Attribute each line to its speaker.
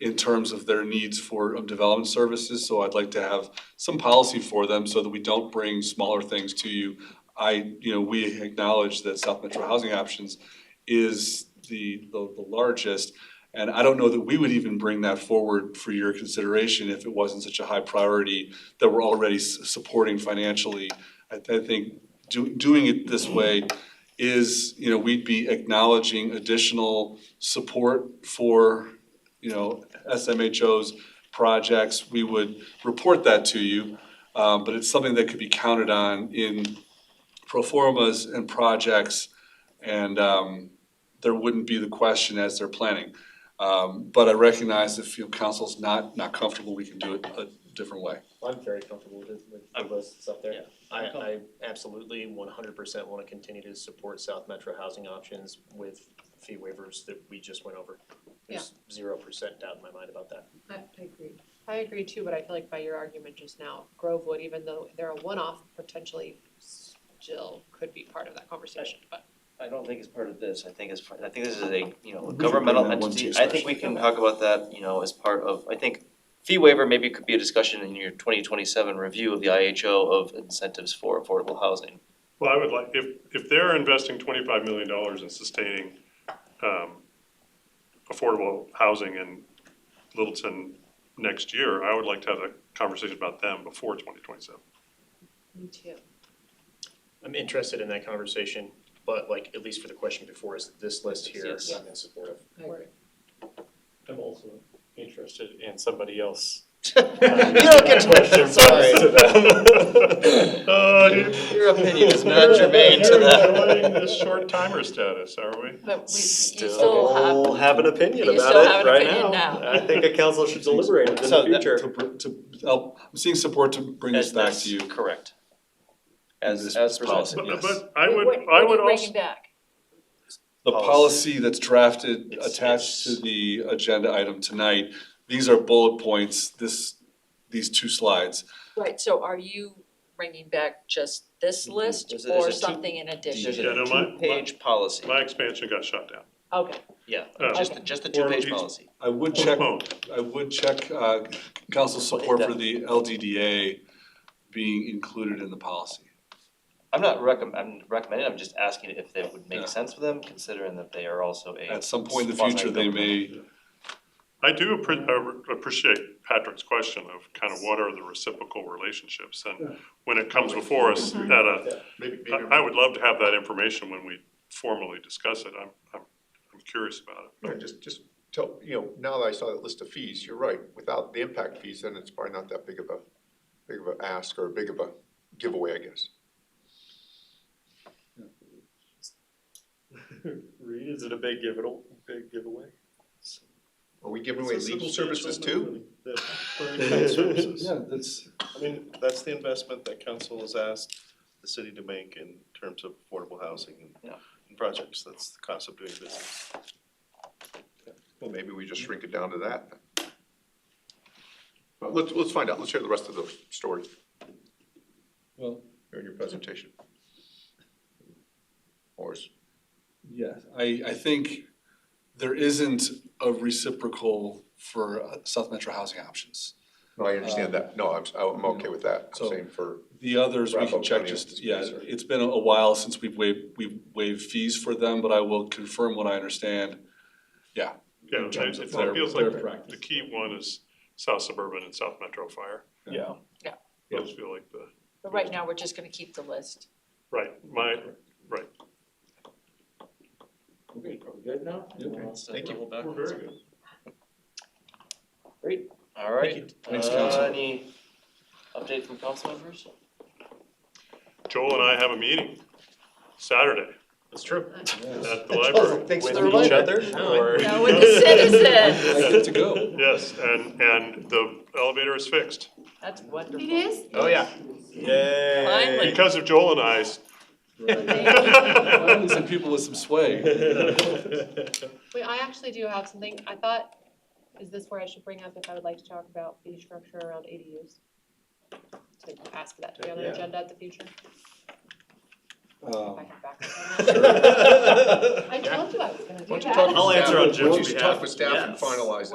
Speaker 1: in terms of their needs for of development services, so I'd like to have some policy for them so that we don't bring smaller things to you. I, you know, we acknowledge that South Metro Housing Options is the the the largest. And I don't know that we would even bring that forward for your consideration if it wasn't such a high priority that we're already s- supporting financially. I I think do doing it this way is, you know, we'd be acknowledging additional support for, you know, SMHO's projects. We would report that to you, um, but it's something that could be counted on in pro formas and projects. And, um, there wouldn't be the question as they're planning. Um, but I recognize if, you know, council's not, not comfortable, we can do it a different way.
Speaker 2: I'm very comfortable with it, with the
Speaker 3: I'm-
Speaker 2: list that's up
Speaker 3: yeah.
Speaker 2: there. I,
Speaker 3: I'm com-
Speaker 2: I absolutely one hundred percent wanna continue to support South Metro Housing Options with fee waivers that we just went over. There's zero percent doubt in my mind about that.
Speaker 4: I I agree. I agree too, but I feel like by your argument just now, Grovewood, even though they're a one-off, potentially still could be part of that conversation, but.
Speaker 3: I don't think it's part of this, I think it's, part- I think this is a, you know, a
Speaker 5: We can
Speaker 3: governmental
Speaker 5: bring that one to you
Speaker 3: entity, I think we can talk about that, you know, as part of, I think fee waiver maybe could be a discussion in your twenty twenty-seven review of the IHO of incentives for affordable housing.
Speaker 6: Well, I would like, if, if they're investing twenty-five million dollars in sustaining, um, affordable housing in Littleton next year, I would like to have a conversation about them before twenty twenty-seven.
Speaker 4: Me too.
Speaker 2: I'm interested in that conversation, but like, at least for the question before, is this list here,
Speaker 3: Yes.
Speaker 2: I'm in support of.
Speaker 4: I agree.
Speaker 7: I'm also interested in somebody else.
Speaker 3: don't get to- sorry.
Speaker 2: Uh,
Speaker 6: Oh, dude.
Speaker 3: Your opinion is not germane to
Speaker 6: We're enjoying
Speaker 3: that.
Speaker 6: this short timer status, are we?
Speaker 4: But we, you
Speaker 7: Still have an opinion
Speaker 4: you
Speaker 7: about
Speaker 4: still
Speaker 7: it
Speaker 4: have an
Speaker 7: right
Speaker 4: opinion
Speaker 7: now.
Speaker 4: now.
Speaker 7: I think a council should deliberate it in
Speaker 3: So
Speaker 7: the
Speaker 3: that-
Speaker 1: To,
Speaker 7: future.
Speaker 1: br- to, help- I'm seeing support to bring this back to you.
Speaker 3: Correct.
Speaker 1: This
Speaker 3: As, as
Speaker 1: is
Speaker 3: policy,
Speaker 6: But,
Speaker 3: yes.
Speaker 6: but I would, I would also,
Speaker 4: back?
Speaker 1: The policy that's drafted,
Speaker 2: It's-
Speaker 1: attached to
Speaker 2: it's-
Speaker 1: the agenda item tonight, these are bullet points, this, these two slides.
Speaker 8: Right, so are you bringing back just this list
Speaker 3: There's a- there's
Speaker 8: or
Speaker 3: a two-
Speaker 8: something in
Speaker 3: There's
Speaker 8: addition?
Speaker 6: Yeah,
Speaker 3: a
Speaker 6: no, my- my-
Speaker 3: two-page policy,
Speaker 6: my expansion got shut down.
Speaker 4: Okay,
Speaker 3: yeah,
Speaker 6: Oh.
Speaker 3: just, just the
Speaker 6: Or
Speaker 3: two-page
Speaker 6: each-
Speaker 3: policy.
Speaker 1: I would check,
Speaker 6: Postponed.
Speaker 1: I would check, uh, council support for the LDDA being included in the policy.
Speaker 3: I'm not recomm, I'm recommending, I'm just asking if it would
Speaker 1: Yeah.
Speaker 3: make sense for them, considering that they are also a.
Speaker 1: At some point in the future, they may,
Speaker 6: I do appre- uh, appreciate Patrick's question of kind of what are the reciprocal relationships? And when it comes before us at a, I I would love to have that information when we formally discuss it. I'm, I'm, I'm curious about it.
Speaker 9: No, just, just tell, you know, now that I saw that list of fees, you're right, without the impact fees, then it's probably not that big of a, big of a ask or big of a giveaway, I guess.
Speaker 7: Reed, is it a big giveaway, big giveaway?
Speaker 9: Are we giving away legal services too?
Speaker 1: yeah, that's,
Speaker 7: I mean, that's the investment that council has asked the city to make in terms of affordable housing and,
Speaker 3: Yeah.
Speaker 7: and projects, that's the cost of doing business.
Speaker 9: Well, maybe we just shrink it down to that. then. But let's, let's find out, let's hear the rest of the story
Speaker 1: well,
Speaker 9: during your presentation. Or is
Speaker 1: Yes, I, I think there isn't a reciprocal for uh, South Metro housing options.
Speaker 9: No, I understand that, no, I'm, I'm okay with that,
Speaker 1: Uh, So-
Speaker 9: same for,
Speaker 1: The others, we can
Speaker 9: Raffle
Speaker 1: check
Speaker 9: County
Speaker 1: just,
Speaker 9: is-
Speaker 1: yeah, it's been a while since we've waived, we've waived fees for them, but I will confirm what I understand.
Speaker 6: Yeah,
Speaker 1: In terms of
Speaker 6: it
Speaker 1: their-
Speaker 6: feels
Speaker 1: their
Speaker 6: like the
Speaker 1: practice.
Speaker 6: key one is South Suburban and South Metro Fire.
Speaker 1: Yeah.
Speaker 8: Yeah.
Speaker 6: Those feel like the,
Speaker 8: But right now, we're just gonna keep the list.
Speaker 6: right, my,
Speaker 3: Good now?
Speaker 9: Thank you.
Speaker 6: we're very good.
Speaker 3: All right.
Speaker 1: Thanks,
Speaker 3: Uh,
Speaker 1: council.
Speaker 3: Any update from council members?
Speaker 6: Joel and I have a meeting Saturday
Speaker 2: That's true.
Speaker 6: at the library.
Speaker 7: Thanks
Speaker 2: for the reminder. No, I-
Speaker 8: No, with the citizen,
Speaker 1: I get to go.
Speaker 6: Yes, and, and the elevator is fixed.
Speaker 8: that's wonderful.
Speaker 4: is?
Speaker 2: Oh, yeah.
Speaker 7: Yay.
Speaker 8: Finally.
Speaker 6: Because of Joel and I's.
Speaker 1: Finally, Some people with some sway.
Speaker 4: Wait, I actually do have something, I thought, is this where I should bring up if I would like to talk about fee structure around ADUs? To ask for that to be on the
Speaker 7: Yeah.
Speaker 4: agenda at the future, if I
Speaker 1: Um,
Speaker 4: have back. on that. I told you I was gonna do that.
Speaker 7: I'll answer on
Speaker 9: Why don't
Speaker 7: Jim's
Speaker 9: you
Speaker 7: behalf.
Speaker 9: talk with staff and
Speaker 7: Yes.
Speaker 9: finalize it?